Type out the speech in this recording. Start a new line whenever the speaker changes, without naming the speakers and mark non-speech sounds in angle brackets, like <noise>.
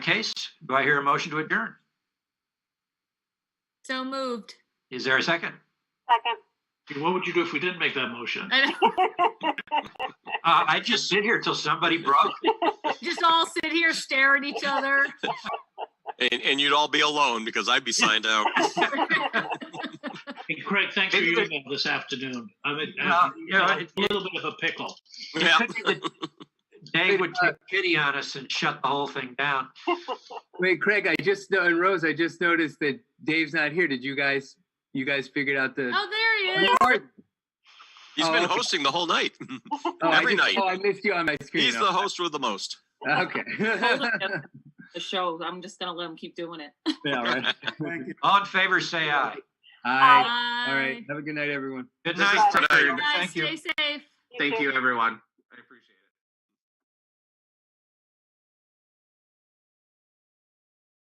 case, do I hear a motion to adjourn?
So moved.
Is there a second?
Second.
What would you do if we didn't make that motion?
And <laughs>
Uh, I just sit here till somebody broke.
just all sit here, stare at each other.
And, and you'd all be alone because I'd be signed out.
Hey, Craig, thanks for
Maybe
your
there's-
email this afternoon. I'm in
Yeah, yeah,
I'm in
it-
a little bit of a pickle.
Yeah.
Could be that Dave would take pity on us and shut the whole thing down.
Wait, Craig, I just know, and Rose, I just noticed that Dave's not here. Did you guys, you guys figured out the?
Oh, there
<laughs>
he is.
He's
Oh,
been
okay.
hosting the whole night.
Oh, I
every
just-
night.
Oh, I missed you on my screen.
He's the host with the most.
Okay.
the show. I'm just gonna let them keep doing it.
<laughs> Yeah, all right.
All in favor, say aye.
All right. All right. Have a good night, everyone.
Good
This is
night.
Thank
Bye. Stay safe.
Thank you.
everyone.